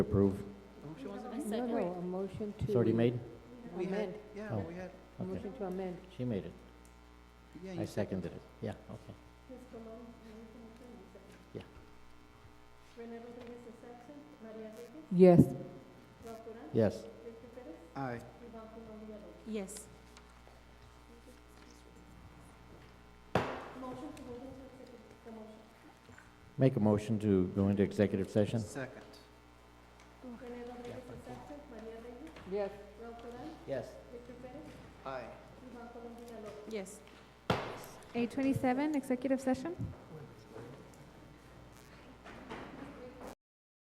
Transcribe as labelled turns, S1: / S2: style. S1: Approve.
S2: No,
S3: second.
S2: no, a motion to.
S1: It's already made?
S4: We had,
S2: Amend,
S4: yeah,
S1: Oh.
S4: we had,
S2: a
S1: Okay,
S2: motion to amend.
S1: she made it.
S4: yeah,
S1: I
S4: you seconded.
S1: seconded it. Yeah, okay. Yeah.
S2: Yes,
S1: Yes,
S4: Aye,
S3: Yes.
S1: make a motion to go into executive session?
S4: second.
S2: yes.
S1: Yes.
S4: Aye.
S3: Yes.
S5: Eight twenty-seven, executive session?